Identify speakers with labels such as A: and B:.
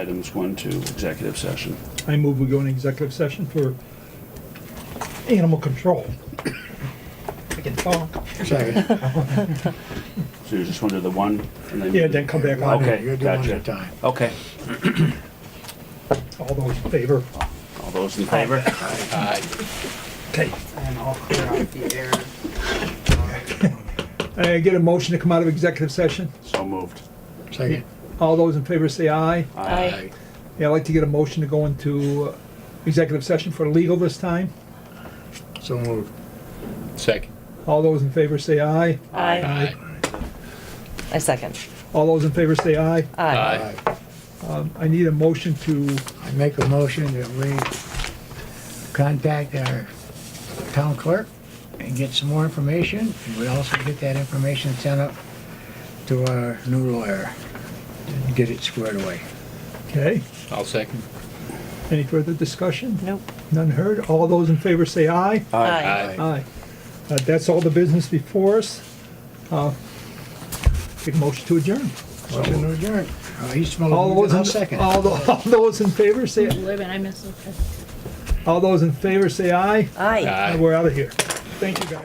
A: items one to executive session.
B: I move we go into executive session for animal control. I can talk.
C: Second.
A: So you just want to do the one and then?
B: Yeah, then come back on.
A: Okay,
C: You're doing one
A: gotcha.
C: at a time.
A: Okay,
B: All those in favor?
A: all those in favor?
B: Okay.
D: And I'll clear out the air.
B: I get a motion to come out of executive session.
A: So moved.
C: Second.
B: All those in favor say aye.
A: Aye.
B: Yeah, I'd like to get a motion to go into uh, executive session for legal this time.
C: So moved.
E: Second.
B: All those in favor say aye.
F: Aye.
E: Aye.
F: I second.
B: All those in favor say aye.
F: Aye.
E: Aye.
B: Um, I need a motion to,
C: I make a motion that we contact our town clerk and get some more information. And we also get that information sent up to our new lawyer and get it squared away.
B: okay,
E: I'll second.
B: any further discussion?
F: Nope.
B: None heard. All those in favor say aye.
F: Aye.
B: Aye. Uh, That's all the business before us. Uh, Take a motion to adjourn.
C: Motion to adjourn. Uh, East Milton,
B: All those,
C: I'll
B: in-
C: second.
B: all tho- all those in favor say,
G: Wait a minute, I missed something.
B: all those in favor say aye.
F: Aye.
E: Aye.
B: And we're out of here. Thank you, guys.